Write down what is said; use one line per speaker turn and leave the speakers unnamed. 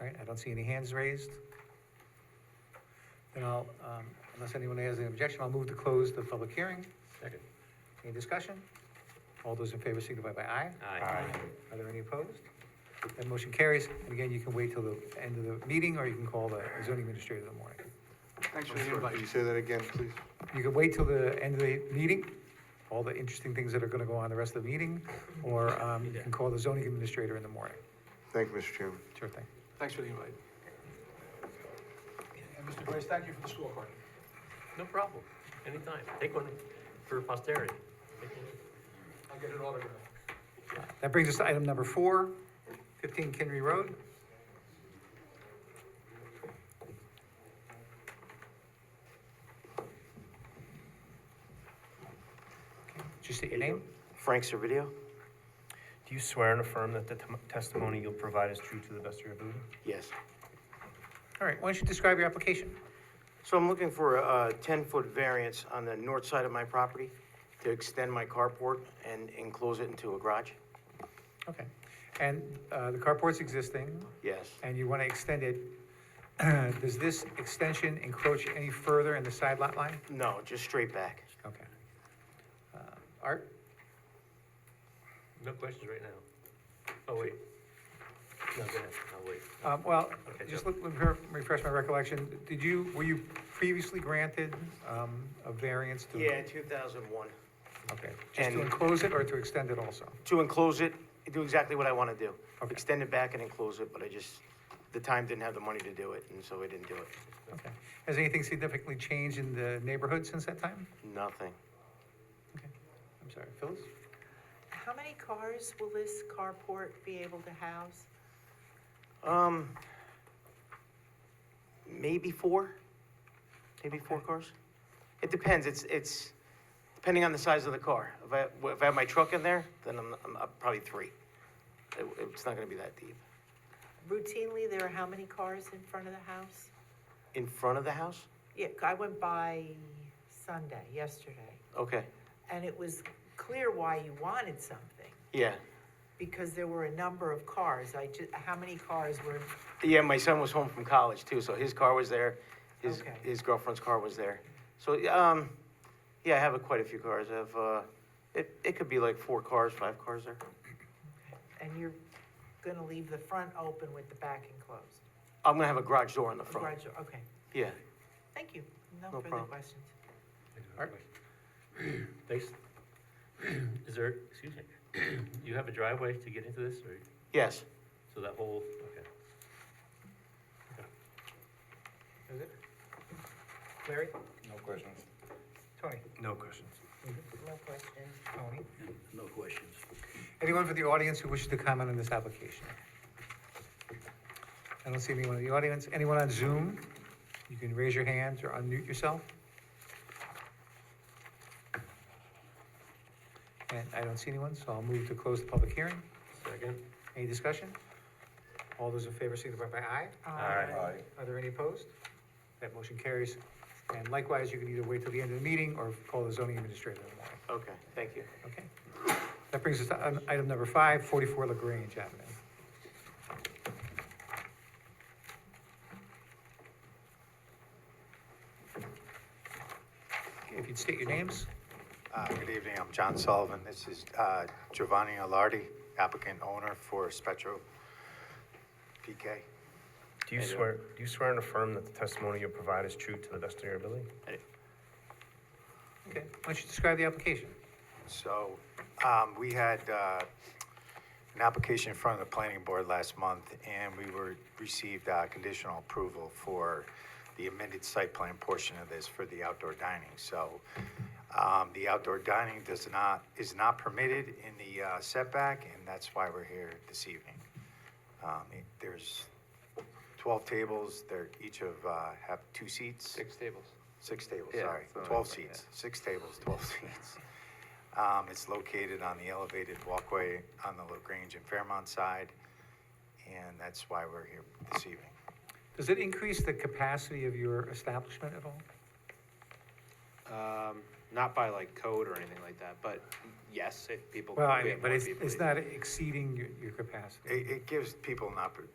All right, I don't see any hands raised. Then I'll, um, unless anyone has any objection, I'll move to close the public hearing.
Second.
Any discussion? All those in favor signify by aye.
Aye.
Are there any opposed? That motion carries, and again, you can wait till the end of the meeting, or you can call the zoning administrator in the morning.
Thanks for the invite. Could you say that again, please?
You can wait till the end of the meeting, all the interesting things that are gonna go on the rest of the meeting, or, um, you can call the zoning administrator in the morning.
Thank you, Mr. Chairman.
Sure thing.
Thanks for the invite. And Mr. Grace, thank you for the scorecard.
No problem, anytime. Take one for posterity. Take one.
I'll get an autograph.
That brings us to item number four, 15 Kinry Road. Okay, Just state your name.
Frank Servideo. Do you swear and affirm that the tem- testimony you'll provide is true to the best of your ability? Yes.
All right, why don't you describe your application?
So I'm looking for a 10-foot variance on the north side of my property to extend my carport and enclose it into a garage?
Okay. And uh, the carport's existing,
Yes.
and you want to extend it. Does this extension encroach any further in the side lot line?
No, just straight back.
Okay. Uh, Art?
No questions right now. Oh, wait. No, go ahead, I'll wait.
Um, Well,
Okay,
just
Joe.
let let me re- refresh my recollection. Did you, were you previously granted um, a variance to?
Yeah, 2001.
Okay, just to
And-
enclose it or to extend it also?
To enclose it, do exactly what I want to do.
Okay.
Extend it back and enclose it, but I just, the time didn't have the money to do it, and so I didn't do it.
Okay. Has anything significantly changed in the neighborhood since that time?
Nothing.
Okay. I'm sorry, Phyllis?
How many cars will this carport be able to house?
Um, maybe four, maybe four cars. It depends, it's, it's, depending on the size of the car. If I, if I have my truck in there, then I'm, I'm up probably three. It, it's not gonna be that deep.
Routinely, there are how many cars in front of the house?
In front of the house?
Yeah, I went by Sunday, yesterday,
Okay,
and it was clear why you wanted something,
yeah.
because there were a number of cars. I ju, how many cars were,
Yeah, my son was home from college too, so his car was there, his,
Okay.
his girlfriend's car was there. So, um, yeah, I have a- quite a few cars, I have, uh, it, it could be like four cars, five cars there.
and you're gonna leave the front open with the back enclosed?
I'm gonna have a garage door in the
A
front,
garage door, Okay,
yeah.
thank you. No
No
further
problem.
questions.
Art?
Thanks. Is there, excuse me, you have a driveway to get into this, or,
Yes.
so that whole, okay.
Is it? Larry?
No questions.
Tony?
No questions.
No questions.
Tony?
No questions.
Anyone from the audience who wishes to comment on this application? I don't see anyone in the audience. Anyone on Zoom? You can raise your hand or unmute yourself. And I don't see anyone, so I'll move to close the public hearing.
Second?
Any discussion? All those in favor signify by aye.
Aye.
Aye.
Are there any opposed? That motion carries. And likewise, you can either wait till the end of the meeting or call the zoning administrator in the morning.
Okay, thank you.
Okay. That brings us to um, item number five, 44 LaGrange Avenue. Okay, If you'd state your names,
Uh, Good evening, I'm John Sullivan. This is uh, Giovanni Alardi, applicant owner for Spectro PK.
Do you swear, do you swear and affirm that the testimony you provide is true to the best of your ability?
okay, why don't you describe the application?
So, um, we had, uh, an application in front of the planning board last month, and we were, received, uh, conditional approval for the amended site plan portion of this for the outdoor dining, so, um, the outdoor dining does not, is not permitted in the uh, setback, and that's why we're here this evening. Um, it- there's twelve tables, they're each of, uh, have two seats.
Six tables.
Six tables,
Yeah,
sorry,
something
twelve
like that,
seats, six tables, twelve seats. Um, it's located on the elevated walkway on the LaGrange and Fairmont side, and that's why we're here this evening.
Does it increase the capacity of your establishment at all?
Um, not by like code or anything like that, but yes, if people.
Well, I
we
mean,
have
but
more
it's,
people,
it's
we-
not exceeding your, your capacity.
It, it gives people an oppor,